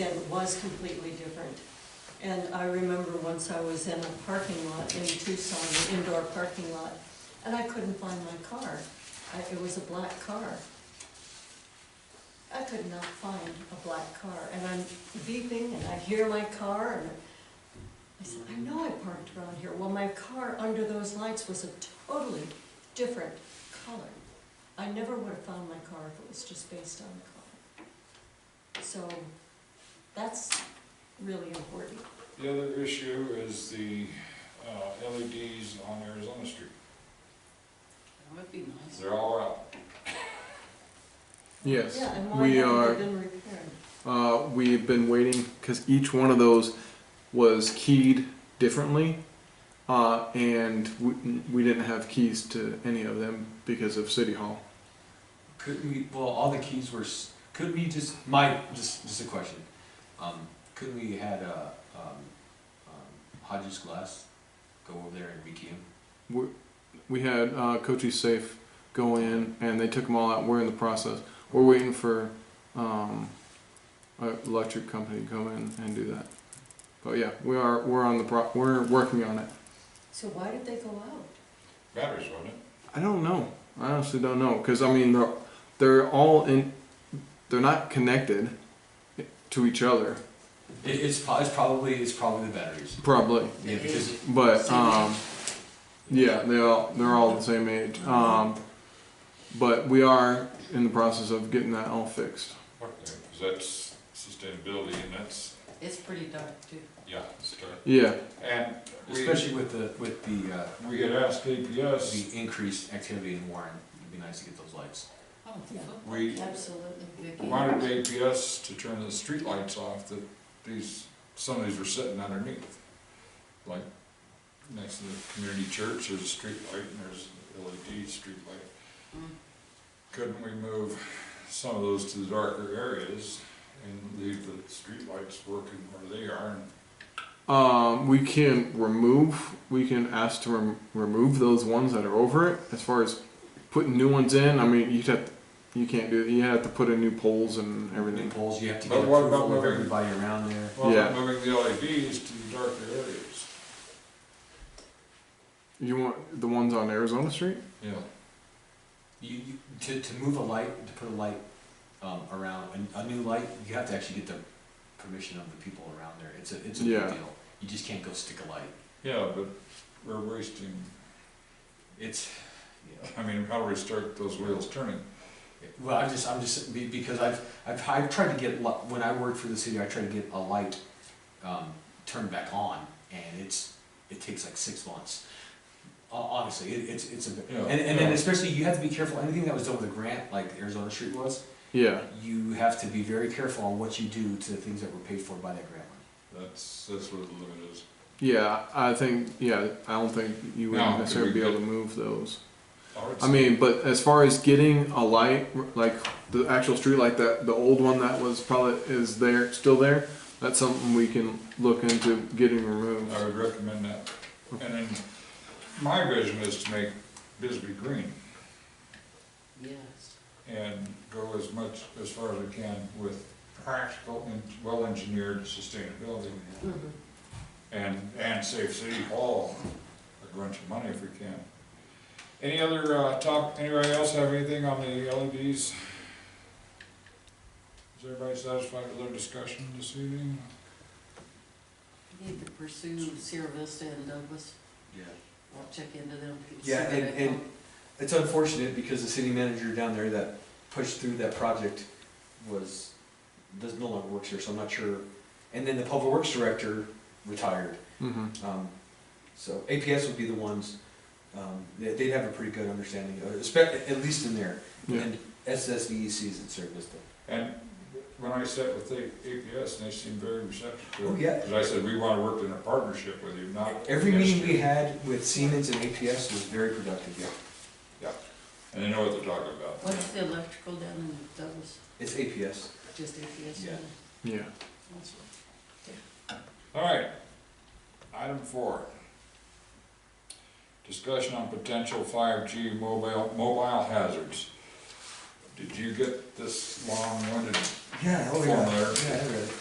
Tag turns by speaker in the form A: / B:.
A: then was completely different. And I remember once I was in a parking lot in Tucson, an indoor parking lot, and I couldn't find my car. I- It was a black car. I could not find a black car, and I'm beeping, and I hear my car, and I said, I know I parked around here. Well, my car under those lights was a totally different color. I never would have found my car if it was just based on the color. So that's really important.
B: The other issue is the uh, LEDs on Arizona Street.
C: That would be nice.
B: They're all out.
D: Yes,
A: Yeah, and why
D: we
A: haven't
D: are,
A: they been repaired?
D: uh, we've been waiting, because each one of those was keyed differently. Uh, and we, we didn't have keys to any of them because of City Hall.
E: Could we? Well, all the keys were. s- Could we just? My just just a question. Um, could we had uh, um, um, Hodges Glass go over there and rekey him?
D: We had, uh, Cochise Safe go in and they took them all out. We're in the process. We're waiting for, um, an electric company to come in and do that. But yeah, we are, we're on the pro, we're working on it.
A: So why did they go out?
B: Batteries, wasn't it?
D: I don't know. I honestly don't know because I mean they're they're all in. They're not connected to each other,
E: It, it's, pro- it's probably it's probably the batteries.
D: probably.
E: Yeah, because
D: But um, yeah, they all they're all the same age. Um, but we are in the process of getting that all fixed.
B: Fuck them, 'cause that's sustainability and that's,
C: It's pretty dark too.
B: yeah, it's dark.
D: Yeah,
B: And we,
E: especially with the with the uh,
B: we had asked APS,
E: the increased activity in Warren, it'd be nice to get those lights.
C: Oh,
A: Yeah.
C: football.
B: we
A: Absolutely.
C: Vicky.
B: wanted APS to turn the streetlights off that these, some of these were sitting underneath. Like, next to the community church, there's a streetlight and there's an LED streetlight.
C: Mm.
B: Couldn't we move some of those to the darker areas and leave the streetlights working where they are? and
D: um, we can remove. We can ask to rem- remove those ones that are over it. As far as putting new ones in, I mean you'd have you can't do. You have to put in new poles and
E: New
D: everything.
E: poles, you have to
B: But
E: get
B: what
E: approval
B: about
E: of
B: moving-
E: everybody around there.
B: Well,
D: Yeah.
B: moving the LEDs to the darker areas.
D: You want the ones on Arizona Street?
B: Yeah.
E: You, you to, to move a light to put a light um, around a, a new light, you have to actually get the permission of the people around there. It's a it's a
D: Yeah.
E: big deal. You just can't go stick a light.
B: Yeah, but we're wasting,
E: It's yeah.
B: I mean, how do we start those wheels turning?
E: well, I'm just I'm just be- because I've I've I've tried to get li- when I worked for the city, I tried to get a light um, turned back on, and it's it takes like six months. Ho- Honestly, it, it's it's a bit,
B: Yeah,
E: and, and then
B: yeah.
E: especially you have to be careful. Anything that was done with a grant, like Arizona Street was,
D: Yeah.
E: you have to be very careful on what you do to the things that were paid for by that grant money.
B: That's, that's where the limit is.
D: Yeah, I think, yeah, I don't think you would
B: No,
D: necessarily
B: we
D: be able to
B: could-
D: move those.
B: would
D: I mean, but as far as getting a light, like the actual street light, that, the old one that was probably, is there, still there, that's something we can look into getting removed.
B: I would recommend that. And then, my vision is to make Bisbee green
C: Yes.
B: and go as much, as far as I can with practical and well-engineered sustainability. And, and save City Hall a bunch of money if we can. Any other, uh, top, anybody else have anything on the LEDs? Is everybody satisfied with their discussion this evening?
C: We Need to pursue Sierra Vista and Douglas.
E: Yeah.
C: I'll check into them. see
E: Yeah,
C: what
E: and,
C: they
E: and it's unfortunate because the city manager down there that pushed through that project was, does no longer works here, so I'm not sure. And then the public works director retired,
D: Mm-hmm.
E: um, so APS would be the ones, um, they- they'd have a pretty good understanding of it, espe- at least in there.
D: Yeah.
E: And SSVEC is in service though.
B: And when I sat with the APS, they seemed very receptive to it.
E: Oh, yeah.
B: Cause I said, we wanna work in a partnership with you, not.
E: Every meeting we
B: against
E: had with Siemens and APS was very productive,
B: Yeah. you." And they know what they're talking about.
C: What's the electrical down in Douglas?
E: It's APS.
C: Just APS?
E: Yeah.
D: Yeah.
C: That's-
B: All right, item four. Discussion on potential five G mobile, mobile hazards. Did you get this long-winded
E: Yeah,
B: oh yeah, Form there.
E: yeah, I read it.